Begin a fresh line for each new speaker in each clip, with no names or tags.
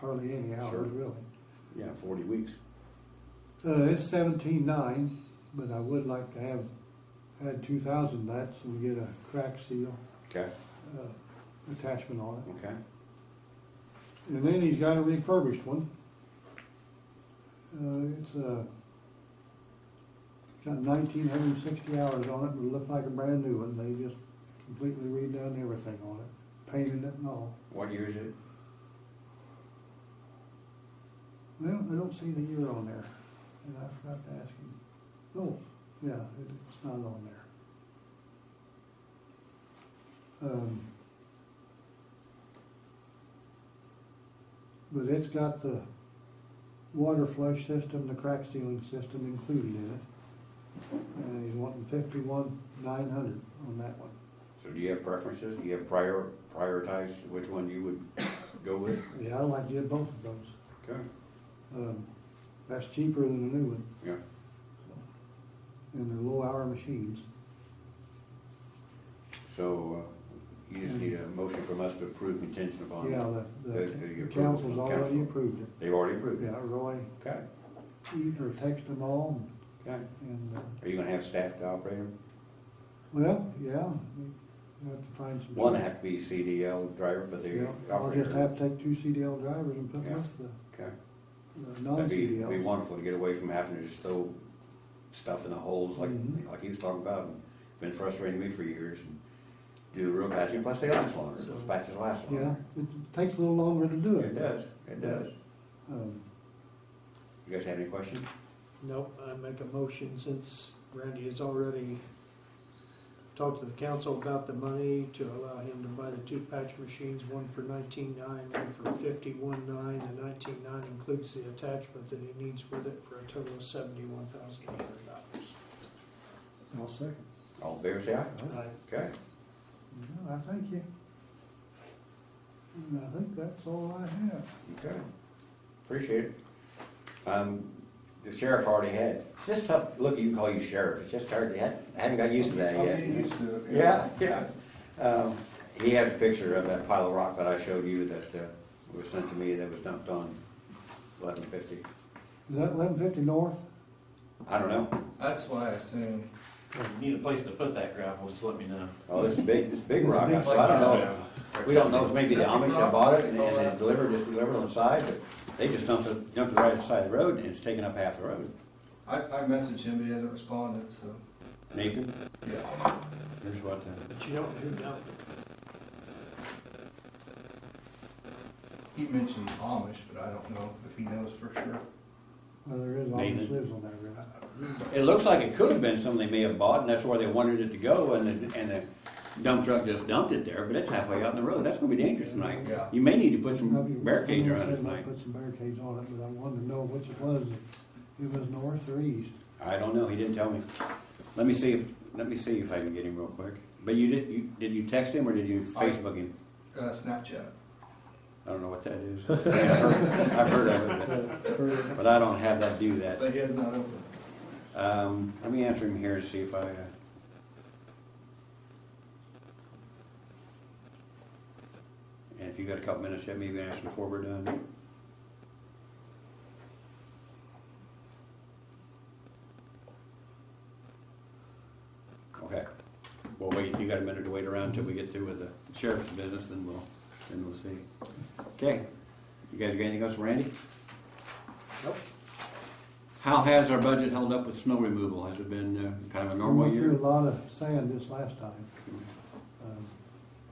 hardly any
Sure.
hours, really.
Yeah, forty weeks.
Uh, it's seventeen nine, but I would like to have, had two thousand that, so we get a crack seal,
Okay,
uh, attachment on it.
okay.
And then he's got a refurbished one. Uh, it's, uh, got nineteen hundred and sixty hours on it, but it looked like a brand new one, they just completely redone everything on it, painted it and all.
What year is it?
Well, I don't see the year on there, and I forgot to ask him. No, yeah, it- it's not on there. Um, But it's got the water flush system, the crack sealing system included in it. And he's wanting fifty-one, nine hundred on that one.
So do you have preferences? Do you have prior, prioritized which one you would go with?
Yeah, I like to get both of those.
Okay,
Um, That's cheaper than a new one.
yeah.
And they're low-hour machines.
So uh, you just need a motion from us to approve contingent upon.
Yeah, the,
The- the
the
approval
council's
from
already
council.
approved it.
They've already approved it?
Yeah, Roy,
Okay,
e- or text them all
okay.
and- and, uh,
Are you gonna have staff to operate them?
well, yeah, we have to find some.
One have to be CDL driver, but they're
Yeah, I'll
operator.
just have to take two CDL drivers and put
Yeah.
with the,
Okay.
the
That'd be, be
non-CDLs.
wonderful to get away from having to just throw stuff in the holes like,
Mhm.
like he was talking about. and Been frustrating me for years. and Do the real patching, plus they last longer, those patches last
Yeah,
longer.
it takes a little longer to do
It
it.
does, it does.
Um,
You guys have any questions?
No, I make a motion since Randy has already talked to the council about the money to allow him to buy the two patch machines, one for nineteen nine, one for fifty-one nine. The nineteen nine includes the attachment that he needs with it for a total of seventy-one thousand eight hundred dollars.
I'll second.
All in favor, say aye. Okay,
No, I thank you. And I think that's all I have.
okay. Appreciate it. Um, the sheriff already had, it's just tough, look, you can call you sheriff, it's just hard, I haven't got used to that
I'm
yet.
getting used to it.
Yeah, yeah. Um, He has a picture of that pile of rock that I showed you that uh, was sent to me that was dumped on eleven fifty.
Is that eleven fifty north?
I don't know.
That's why I assume,
If you Need a place to put that gravel, just let me know.
Oh, this is big, this is big rock. So I don't know. if- We don't know if maybe the Amish have bought it and and they delivered, just delivered on the side, but they just dumped it, dumped it right side of the road and it's taken up half the road.
I, I messaged him, but he hasn't responded, so,
Nathan,
yeah.
here's what, uh,
But you don't, who don't?
He mentioned Amish, but I don't know if he knows for sure.
Well, there is, always
Nathan.
lives on that road.
it looks like it could have been something they may have bought and that's where they wanted it to go and the, and the dump truck just dumped it there, but it's halfway out in the road. That's gonna be dangerous tonight.
Yeah.
You may need to put
I'll be-
some barricades around it
I might
tonight.
Put some barricades on it, but I wanted to know which it was, if it was north or east.
I don't know, he didn't tell me. Let me see if, let me see if I can get him real quick. But you did, you, did you text him or did you
I-
Facebook him?
Uh, Snapchat.
I don't know what that is. I've heard I've heard of it, but I don't have that, do that.
But he has not opened.
Um, let me answer him here and see if I, uh, and if you got a couple minutes yet, maybe ask him before we're done. Okay. Well, wait, you got a minute to wait around until we get through with the sheriff's business, then we'll, then we'll see. Okay, you guys got anything else for Randy? Nope. How has our budget held up with snow removal? Has it been uh, kind of a
We
normal
went
year?
through a lot of sand this last time. Um,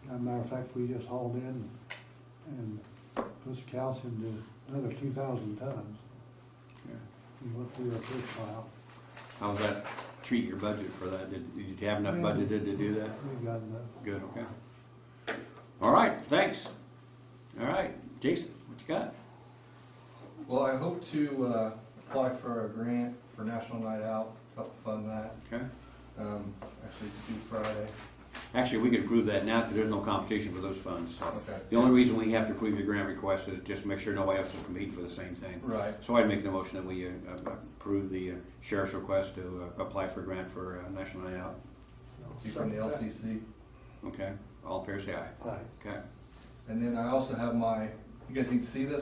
As a matter of fact, we just hauled in and put some calcium to another two thousand tons.
Yeah.
We went through our first pile.
How's that treat your budget for that? Did, did you have enough
Yeah.
budgeted to do that?
We got enough.
Good, okay. All right, thanks. All right, Jason, what you got?
Well, I hope to, uh, apply for a grant for National Night Out, help fund that.
Okay.
Um, actually, it's due Friday.
Actually, we could approve that now because there's no competition for those funds. so.
Okay.
The only reason we have to approve your grant request is just to make sure nobody else is competing for the same thing.
Right.
So I'd make the motion that we uh, approve the uh, sheriff's request to uh, apply for a grant for uh, National Night Out.
Due from the LCC.
Okay, all fair say aye.
Aye.
Okay.
And then I also have my, you guys need to see this?